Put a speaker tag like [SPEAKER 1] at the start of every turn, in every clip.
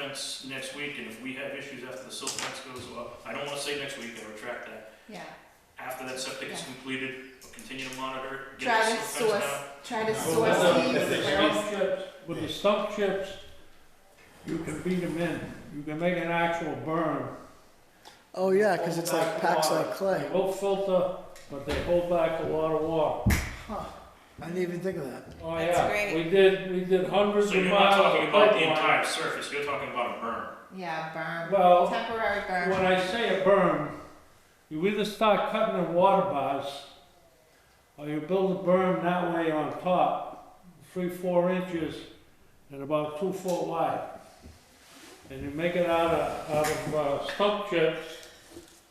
[SPEAKER 1] fence next week, and if we have issues after the silt fence goes up, I don't wanna say next week, I retract that.
[SPEAKER 2] Yeah,
[SPEAKER 1] After that septic is
[SPEAKER 2] Yeah.
[SPEAKER 1] completed, we'll continue to monitor, get
[SPEAKER 2] try
[SPEAKER 1] the
[SPEAKER 2] to
[SPEAKER 1] silt fence
[SPEAKER 2] source,
[SPEAKER 1] down.
[SPEAKER 2] try to
[SPEAKER 3] No.
[SPEAKER 2] source
[SPEAKER 3] Well,
[SPEAKER 2] these.
[SPEAKER 3] if they
[SPEAKER 2] bills.
[SPEAKER 3] stump chips, with the stump chips, you can beat them in, you can make an actual berm.
[SPEAKER 4] Oh yeah, because it's like packs like clay.
[SPEAKER 3] They will filter, but they hold back a lot of water.
[SPEAKER 4] Huh. I didn't even think of that.
[SPEAKER 3] Oh
[SPEAKER 2] That's
[SPEAKER 3] yeah,
[SPEAKER 2] great.
[SPEAKER 3] we did, we did hundreds
[SPEAKER 1] So
[SPEAKER 3] of
[SPEAKER 1] you're not
[SPEAKER 3] miles
[SPEAKER 1] talking
[SPEAKER 3] of
[SPEAKER 1] about the entire
[SPEAKER 3] pipeline.
[SPEAKER 1] surface, you're talking about a berm.
[SPEAKER 2] Yeah, berm,
[SPEAKER 3] Well,
[SPEAKER 2] temporary
[SPEAKER 3] when
[SPEAKER 2] berm,
[SPEAKER 3] I say a berm, you either start cutting in water bars, or you build a berm that way on top, three, four inches, and about two foot wide. And you make it out of, out of uh, stump chips,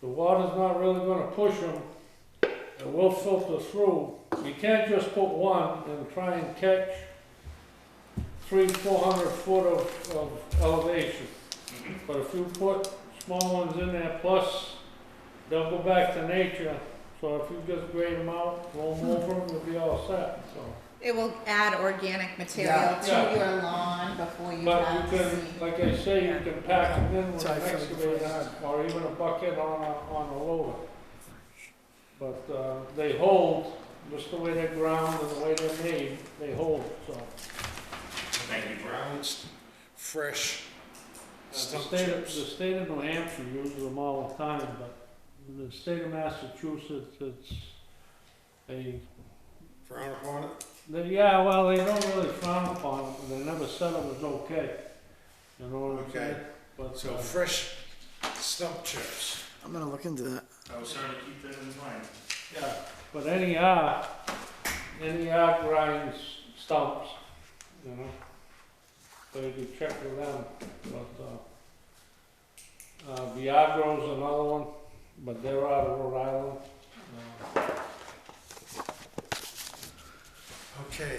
[SPEAKER 3] the water's not really gonna push them, it will filter through. You can't just put one and try and catch three, four hundred foot of, of elevation.
[SPEAKER 2] Mm-hmm.
[SPEAKER 1] Mhm.
[SPEAKER 3] But if you put small ones in there, plus they'll go back to nature, so if you just grade them out, roll them over, you'll be all set, so.
[SPEAKER 2] it will add organic material
[SPEAKER 4] Yeah.
[SPEAKER 2] to
[SPEAKER 3] Yeah.
[SPEAKER 2] your lawn before you
[SPEAKER 3] But
[SPEAKER 2] have
[SPEAKER 3] you
[SPEAKER 2] seed.
[SPEAKER 3] can, like I say, you can pack them in with
[SPEAKER 4] So I
[SPEAKER 3] an
[SPEAKER 4] feel like it's
[SPEAKER 3] excavator or even a bucket on a, on a loader. But, uh, they hold, just the way they're ground and the way they're made, they hold, so.
[SPEAKER 1] Thank you, Brad.
[SPEAKER 5] Grounds, fresh
[SPEAKER 3] The
[SPEAKER 5] stump
[SPEAKER 3] state, of- the
[SPEAKER 5] chips.
[SPEAKER 3] state of New Hampshire uses them all the time, but in the state of Massachusetts, it's a
[SPEAKER 5] Frown upon it.
[SPEAKER 3] They- Yeah, well, they don't really frown upon it, they never said it was okay. You know what I'm saying?
[SPEAKER 5] Okay.
[SPEAKER 3] But,
[SPEAKER 5] So
[SPEAKER 3] uh,
[SPEAKER 5] fresh stump chips.
[SPEAKER 4] I'm gonna look into that.
[SPEAKER 1] I was trying to keep that in mind.
[SPEAKER 3] yeah, but any art, any art grinds stumps, you know? So you can check with them, but, uh, uh, Viagro's another one, but they're out of Rhode Island. Uh,
[SPEAKER 5] Okay.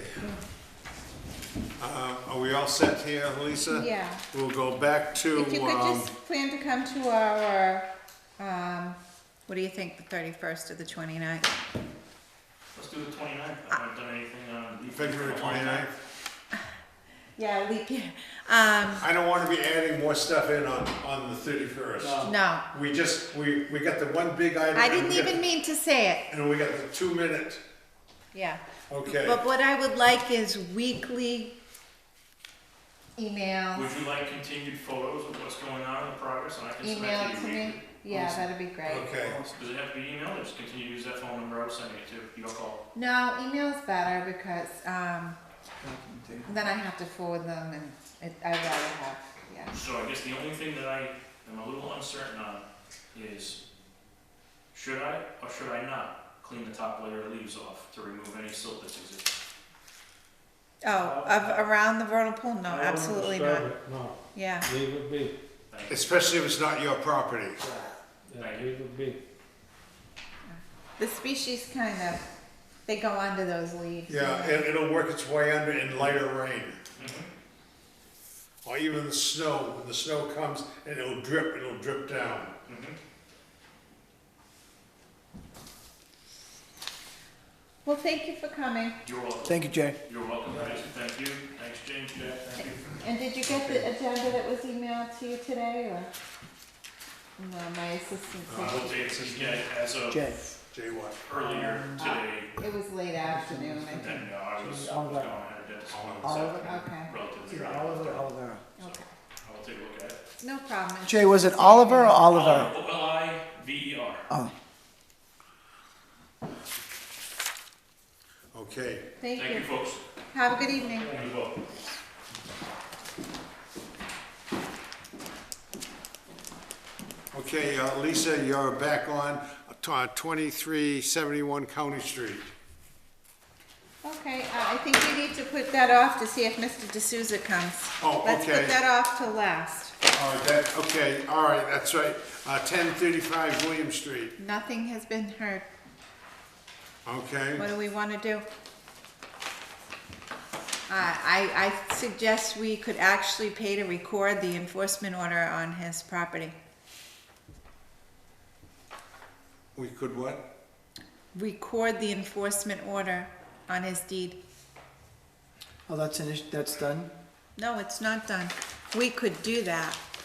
[SPEAKER 5] Uh, are we all set here, Lisa?
[SPEAKER 2] Yeah,
[SPEAKER 5] We'll go back to,
[SPEAKER 2] if you could
[SPEAKER 5] um,
[SPEAKER 2] just plan to come to our, um, what do you think, the thirty-first or the twenty-ninth?
[SPEAKER 1] Let's do the 29th. I haven't done anything on. the-
[SPEAKER 5] February twenty-ninth.
[SPEAKER 2] Yeah, leap year, um,
[SPEAKER 5] I don't wanna be adding more stuff in on, on the thirty-first.
[SPEAKER 3] No.
[SPEAKER 2] no,
[SPEAKER 5] We just, we, we got the one big item.
[SPEAKER 2] I
[SPEAKER 5] and
[SPEAKER 2] didn't
[SPEAKER 5] we got-
[SPEAKER 2] even mean to say it,
[SPEAKER 5] And we got the two-minute,
[SPEAKER 2] yeah.
[SPEAKER 5] okay.
[SPEAKER 2] But what I would like is weekly email,
[SPEAKER 1] Would you like continued photos of what's going on in the progress, and I can send
[SPEAKER 2] email
[SPEAKER 1] that
[SPEAKER 2] to
[SPEAKER 1] to you
[SPEAKER 2] me,
[SPEAKER 1] weekly?
[SPEAKER 2] yeah, that'd be great.
[SPEAKER 5] Okay,
[SPEAKER 1] Does it have to be emailed, or just continue to use that phone number I was sending it to, your call?
[SPEAKER 2] No, email's better because um, then I have to forward them and it, I'd rather have, yeah.
[SPEAKER 1] So I guess the only thing that I am a little uncertain on is, should I or should I not clean the top layer of leaves off to remove any silt that's existing?
[SPEAKER 2] Oh, of around the vernal pool? No,
[SPEAKER 3] I wouldn't
[SPEAKER 2] Oh, absolutely
[SPEAKER 3] disturb
[SPEAKER 2] not.
[SPEAKER 3] it, No,
[SPEAKER 2] Yeah.
[SPEAKER 3] leave it be,
[SPEAKER 1] Thank you.
[SPEAKER 5] especially if it's not your property.
[SPEAKER 3] yeah,
[SPEAKER 1] Thank you.
[SPEAKER 3] leave it be.
[SPEAKER 2] The species kind of, they go under those leaves.
[SPEAKER 5] Yeah,
[SPEAKER 2] you know.
[SPEAKER 5] it, it'll work its way under in lighter rain.
[SPEAKER 1] Mhm.
[SPEAKER 5] Or even the snow, when the snow comes and it'll drip, it'll drip down.
[SPEAKER 1] Mhm.
[SPEAKER 2] Well, thank you for coming.
[SPEAKER 1] You're welcome.
[SPEAKER 4] Thank you, Jay.
[SPEAKER 1] You're welcome, guys, thank you, thanks, James, Jack, thank you.
[SPEAKER 2] And did you get the agenda that was emailed to you today or? No, my assistant
[SPEAKER 5] Uh,
[SPEAKER 2] said
[SPEAKER 1] We'll take it again as of
[SPEAKER 4] Jay.
[SPEAKER 5] Jay what?
[SPEAKER 1] earlier today,
[SPEAKER 2] it was late afternoon, I think.
[SPEAKER 1] then, no, I was, I was going ahead and did this one,
[SPEAKER 2] Okay,
[SPEAKER 1] relatively.
[SPEAKER 4] Either
[SPEAKER 1] early.
[SPEAKER 4] Oliver or Oliver.
[SPEAKER 2] okay.
[SPEAKER 1] I will take a look at it.
[SPEAKER 2] No problem.
[SPEAKER 4] Jay, was it Oliver or Oliver?
[SPEAKER 1] O L I V E R.
[SPEAKER 4] Oh,
[SPEAKER 5] Okay,
[SPEAKER 2] Thank
[SPEAKER 1] Thank you,
[SPEAKER 2] you.
[SPEAKER 1] folks.
[SPEAKER 2] Have a good evening.
[SPEAKER 1] You're welcome.
[SPEAKER 5] okay, uh, Lisa, you're back on uh, twenty-three seventy-one County Street.
[SPEAKER 2] Okay, uh, I think we need to put that off to see if Mr. D'Souza comes.
[SPEAKER 5] Oh,
[SPEAKER 2] Let's
[SPEAKER 5] okay.
[SPEAKER 2] put that off till last.
[SPEAKER 5] All right, that, okay, all right, that's right, uh, ten thirty-five William Street,
[SPEAKER 2] Nothing has been heard. What
[SPEAKER 5] okay?
[SPEAKER 2] do we want to do? Uh, I, I suggest we could actually pay to record the enforcement order on his property.
[SPEAKER 5] We could what?
[SPEAKER 2] Record the enforcement order on his deed.
[SPEAKER 4] oh, that's an issue. That's done.
[SPEAKER 2] No, it's not done. we could do that.